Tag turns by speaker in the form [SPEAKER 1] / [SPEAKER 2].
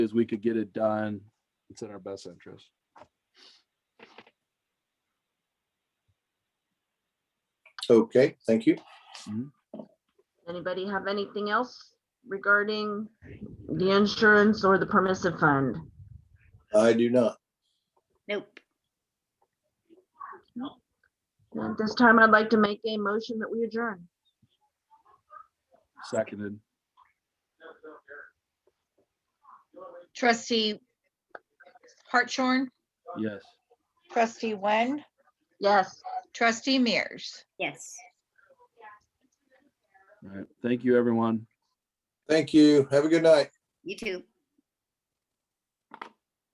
[SPEAKER 1] is we could get it done. It's in our best interest.
[SPEAKER 2] Okay, thank you.
[SPEAKER 3] Anybody have anything else regarding the insurance or the permissive fund?
[SPEAKER 2] I do not.
[SPEAKER 4] Nope.
[SPEAKER 3] At this time, I'd like to make a motion that we adjourn.
[SPEAKER 1] Seconded.
[SPEAKER 4] Trustee Hartshorn,
[SPEAKER 1] Yes.
[SPEAKER 4] trustee Wen,
[SPEAKER 3] Yes.
[SPEAKER 4] trustee Mears.
[SPEAKER 5] Yes.
[SPEAKER 1] All right. Thank you, everyone.
[SPEAKER 2] Thank you. Have a good night.
[SPEAKER 5] You too.